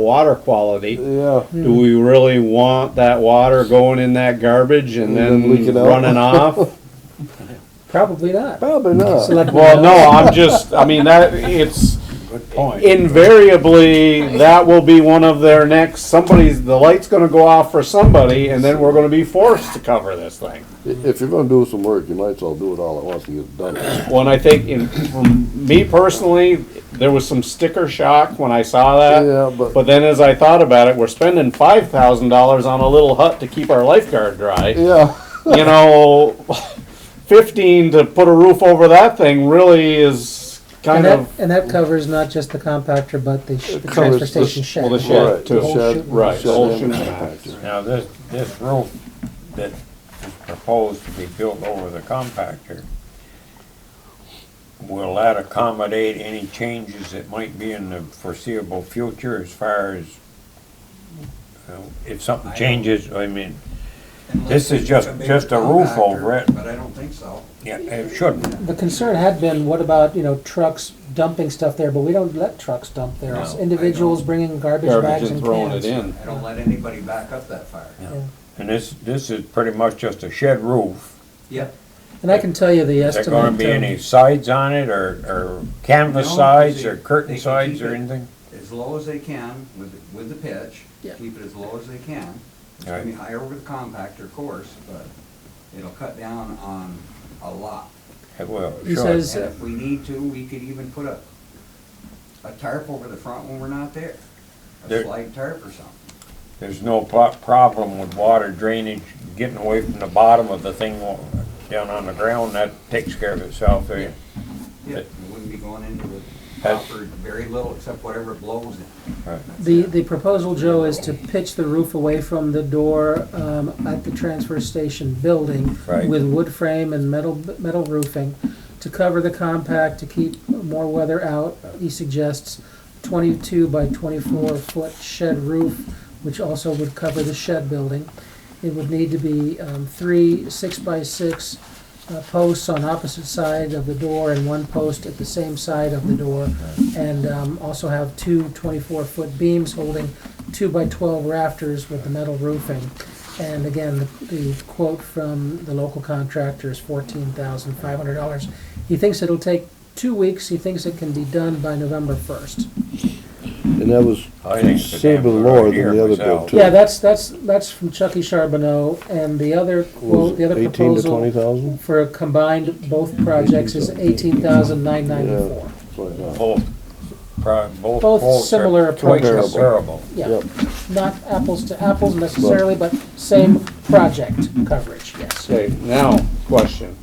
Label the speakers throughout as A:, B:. A: water quality.
B: Yeah.
A: Do we really want that water going in that garbage and
B: And then
A: then
B: leaking out?
A: running off?
C: Probably not.
B: Probably not.
C: Selectmen
A: Well,
C: know.
A: no, I'm just, I mean, that, it's
D: Point.
A: invariably, that will be one of their next, somebody's, the light's gonna go off for somebody and then we're gonna be forced to cover this thing.
B: I- If you're gonna do some work, you might as well do it all at once and get it done.
A: When I think, in, from me personally, there was some sticker shock when I saw that.
B: Yeah, but-
A: But then as I thought about it, we're spending five thousand dollars on a little hut to keep our lifeguard dry.
B: Yeah,
A: you know, 15 to put a roof over that thing really is
C: And
A: kind
C: that,
A: of,
C: and that covers not just the compactor, but the, sh- the
B: covers
C: transfer
B: the
C: station
B: sh-
C: shed.
A: well, the shed
B: right.
A: too.
B: Shed-
A: right,
B: shed
A: the whole
B: and-
A: shooting match.
D: Now, this, this roof that is proposed to be built over the compactor, will that accommodate any changes that might be in the foreseeable future as far as, you know, if something changes, I mean, This is just- just a roof over it.
E: But I don't think so.
D: yeah, it shouldn't.
C: The concern had been, what about, you know, trucks dumping stuff there, but we don't let trucks dump there. It's
D: No, I
C: individuals
E: don't.
C: bringing garbage
A: Garbage
C: bags
A: and
C: and
A: throwing it
C: cans.
A: in.
E: I don't let anybody back up that far.
C: Yeah.
D: And this, this is pretty much just a shed roof.
E: Yep.
C: And I can tell you the
D: Is there gonna
C: estimate,
D: be any
C: um,
D: sides on it, or, or
E: No,
D: canvas
E: 'cause
D: sides,
E: they-
D: or curtain
E: they can
D: sides,
E: keep
D: or
E: it.
D: anything?
E: As low as they can with, with the pitch,
C: Yeah.
E: keep it as low as they can. It's gonna
D: Right.
E: be higher over the compactor, of course, but it'll cut down on a lot.
D: It will,
C: He
D: sure.
C: says-
E: And if we need to, we could even put a, a tarp over the front when we're not there. A
D: There-
E: slide tarp or something.
D: There's no pro- problem with water drainage getting away from the bottom of the thing wa- down on the ground, that takes care of itself. eh?
E: Yeah,
D: But-
E: it wouldn't be going into the
D: That's-
E: copper, very little except whatever blows in.
D: Right.
C: the, the proposal, Joe, is to pitch the roof away from the door, um, at the transfer station building
D: Right.
C: with wood frame and metal, metal roofing to cover the compact, to keep more weather out. He suggests twenty-two by twenty-four foot shed roof, which also would cover the shed building. It would need to be, um, three six by six uh, posts on opposite side of the door and one post at the same side of the door. And um, also have two 24-foot beams holding two by 12 rafters with the metal roofing. And again, the- the quote from the local contractor is $14,500. He thinks it'll take two weeks. He thinks it can be done by November 1st.
B: and that was
D: I think it's a
B: considerably
D: damn good
B: lower
D: idea
B: than the other
D: myself.
B: bid too.
C: Yeah, that's, that's, that's from Chucky Charbonneau. And the other
B: Was
C: quote,
B: it
C: the other
B: Eighteen to twenty
C: proposal
B: thousand?
C: for a combined both projects is 18,994.
D: Both, pro- both.
C: Both
D: quotes are
C: similar
D: quite
C: approaches.
D: Comparable.
C: Yeah,
B: Yep.
C: not apples to apples necessarily, but same project coverage, yes.
A: Okay, now, question.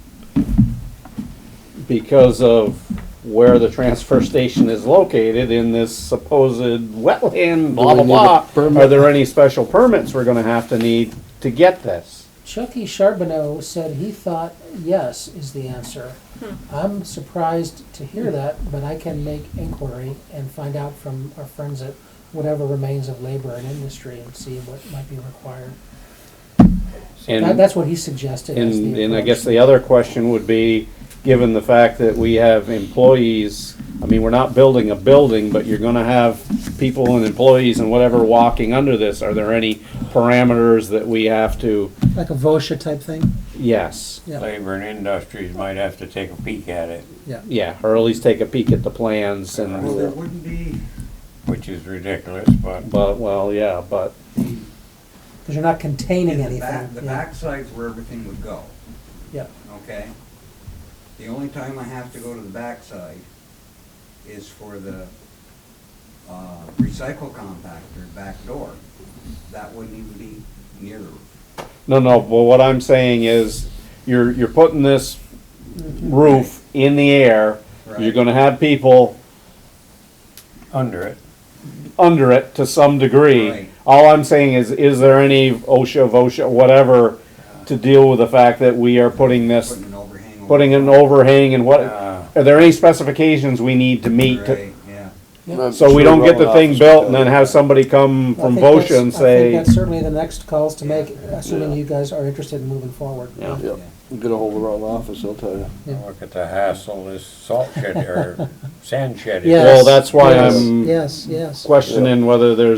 A: Because of where the transfer station is located in this supposed wetland, blah, blah,
B: we need a
A: blah,
B: permit?
A: are there any special permits we're gonna have to need to get this?
C: Chucky Charbonneau said he thought yes is the answer. I'm surprised to hear that, but I can make inquiry and find out from our friends at whatever remains of labor and industry and see what might be required. That-
A: And-
C: That's what he suggested as
A: And,
C: the
A: and I
C: approach.
A: guess the other question would be, given the fact that we have employees, I mean, we're not building a building, but you're gonna have people and employees and whatever walking under this, are there any parameters that we have to,
C: Like a VOSHA type thing,
A: yes,
C: yeah,
D: Labor and industries might have to take a peek at it,
C: yeah.
A: yeah, or at least take a peek at the plans
E: Well, there
A: and,
E: wouldn't be,
D: which is ridiculous, but
A: but, well, yeah, but,
C: Because you're not containing
E: the
C: anything.
E: back, the
C: yeah.
E: backside's where everything would go.
C: Yeah.
E: Okay? The only time I have to go to the backside is for the, uh, recycle compactor back door. That wouldn't even be near the roof.
A: no, no, but what I'm saying is, you're, you're putting this roof in the air, you're
E: Mm-hmm. Right.
A: gonna have people
D: under it,
A: under it to some degree.
E: Right.
A: All I'm saying is, is there any OSHA, VOSHA, whatever, to deal with the fact that we are putting this,
E: Putting an overhang over.
A: putting an overhang and what?
D: Uh.
A: Are there any specifications we need to meet? to-
E: Right, yeah.
A: So we don't get the thing built and then have somebody come
C: Well, I
A: from
C: think that's-
A: VOSHA and
C: I think
A: say,
C: that's certainly the next calls to make, assuming
B: Yeah.
C: you guys are interested in moving forward.
A: Yeah.
B: Yep, get ahold of our office, I'll tell you.
D: look at the hassle this salt shed, or sand shed is.
C: Yes,
A: Well, that's why
C: yes,
A: I'm
C: Yes, yes.
A: questioning whether there's